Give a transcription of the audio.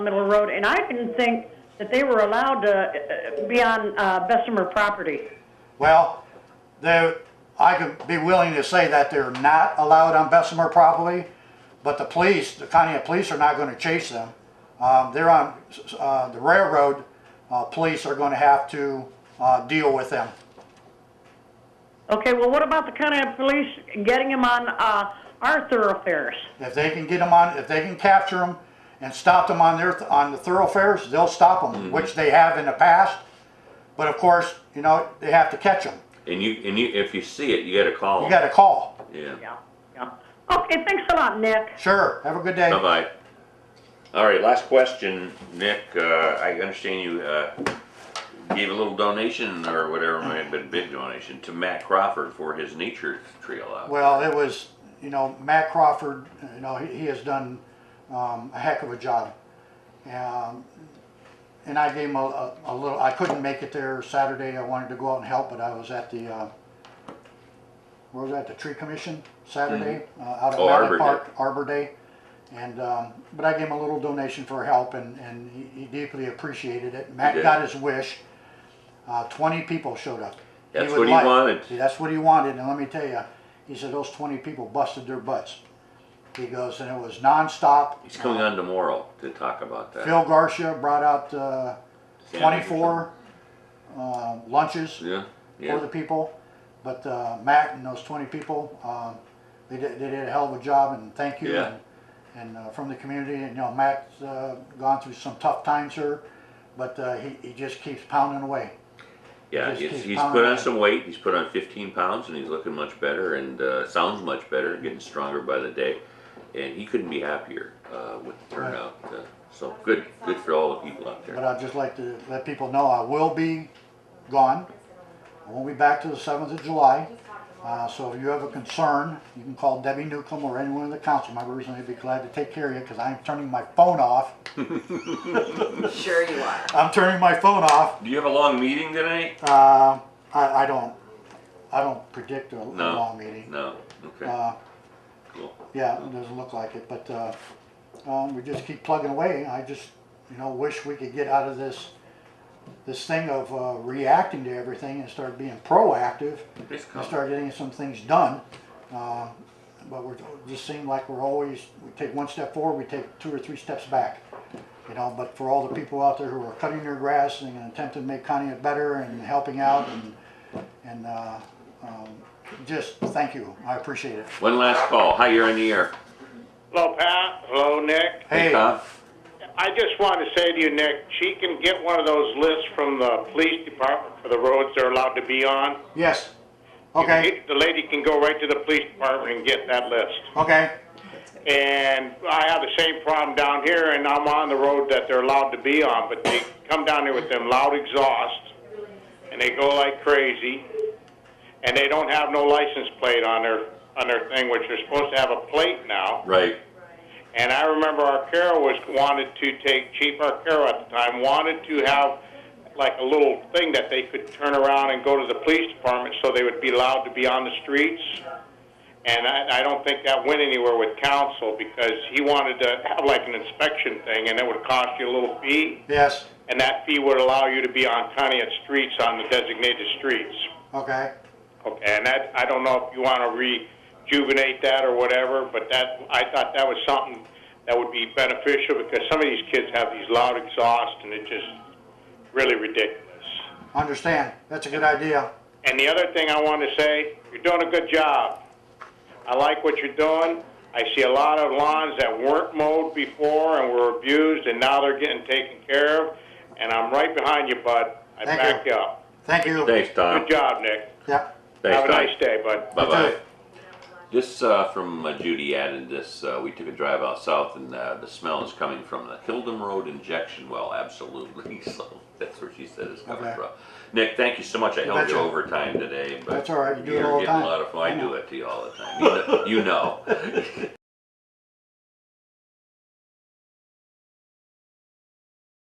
Middle Road, and I didn't think that they were allowed to uh, be on uh, Bessemer property. Well, they, I could be willing to say that they're not allowed on Bessemer property, but the police, the county police are not gonna chase them. Um, they're on, uh, the railroad, uh, police are gonna have to, uh, deal with them. Okay, well, what about the county police getting them on uh, our thoroughfares? If they can get them on, if they can capture them and stop them on their, on the thoroughfares, they'll stop them, which they have in the past. But of course, you know, they have to catch them. And you, and you, if you see it, you gotta call You them. gotta call. Yeah. Yeah, yeah. Okay, thanks a lot, Nick. Sure, have a good day. Bye-bye. All right, last question, Nick, uh, I understand you, uh, gave a little donation or whatever, it might have been a big donation to Matt Crawford for his nature trail out. Well, it was, you know, Matt Crawford, you know, he, he has done um, a heck of a job. Um, and I gave him a, a, a little, I couldn't make it there Saturday. I wanted to go out and help, but I was at the, uh, where was I, at the Tree Commission Saturday, uh, out at Oh, Mountain Arbor Day. Park, Arbor Day. And, um, but I gave him a little donation for help and, and he, he deeply appreciated it. Matt did. got his wish. Uh, 20 people showed up. That's would what he like- wanted. See, That's what he wanted, and let me tell you, he said those 20 people busted their butts. He goes, and it was nonstop. He's coming on tomorrow to talk about that. Phil Garcia brought out uh, Sandwich or 24 uh, lunches Yeah, for the yeah, people, but uh, Matt and those 20 people, um, they did, they did a hell of a job, and thank you. Yeah. and- And uh, from the community, and you know, Matt's uh, gone through some tough times here, but uh, he, he just keeps pounding away. yeah, Just he's, keep he's pounding put on it. some weight, he's put on fifteen pounds and he's looking much better and, uh, sounds much better, getting stronger by the day. And he couldn't be happier, uh, with the turnout, uh, so good, good for all the people out there. But I'd just like to let people know I will be gone. I won't be back till the seventh of July. Uh, so if you have a concern, you can call Debbie Newcomb or any one of the council members and they'd be glad to take care of you because I'm turning my phone off. Sure you are. I'm turning my phone off. Do you have a long meeting tonight? Uh, I, I don't, I don't predict a a No. long meeting. No, okay, Uh, cool. Yeah, it doesn't look like it, but, uh, um, we just keep plugging away. I just, you know, wish we could get out of this, this thing of, uh, reacting to everything and start being proactive Please and come. start getting some things done. Uh, but we're, it just seem like we're always, we take one step forward, we take two or three steps back. You know, but for all the people out there who are cutting their grass and attempting to make Conneaut better and helping out and, and, uh, um, just thank you. I appreciate it. One last call. Hi, you're on the air. Hello, Pat. Hello, Nick. Hey. Tom. I just wanted to say to you, Nick, she can get one of those lists from the police department for the roads they're allowed to be on. Yes. Okay, The lady can go right to the police department and get that list. okay. And I have the same problem down here, and I'm on the road that they're allowed to be on, but they come down here with them loud exhausts, and they go like crazy, and they don't have no license plate on their, on their thing, which they're supposed to have a plate now. Right. And I remember Arcaro was wanted to take Chief Arcaro at the time wanted to have like a little thing that they could turn around and go to the police department so they would be allowed to be on the streets. And I, I don't think that went anywhere with council because he wanted to have like an inspection thing and it would cost you a little fee. Yes, And that fee would allow you to be on Conneaut streets on the designated streets. okay. Okay, and that, I don't know if you want to rejuvenate that or whatever, but that, I thought that was something that would be beneficial because some of these kids have these loud exhausts and it's just really ridiculous. Understand. That's a good idea. And the other thing I want to say, you're doing a good job. I like what you're doing. I see a lot of lawns that weren't mowed before and were abused and now they're getting taken care of. And I'm right behind you, bud. I Thank back you. you up. Thank you. Thanks, Tom. Good job, Nick. Yep. Thanks, Have a Tom. nice day, bud. Bye You bye. too. This uh, from uh, Judy added this. Uh, we took a drive out south, and uh, the smell is coming from the Hildem Road injection well. Absolutely. So that's where she said it's coming Okay. from. Nick, thank you so much. I held betcha. you overtime today. But That's all right. You do it you're all the getting time. A lot of, I I do it to you all the time. You know. You know.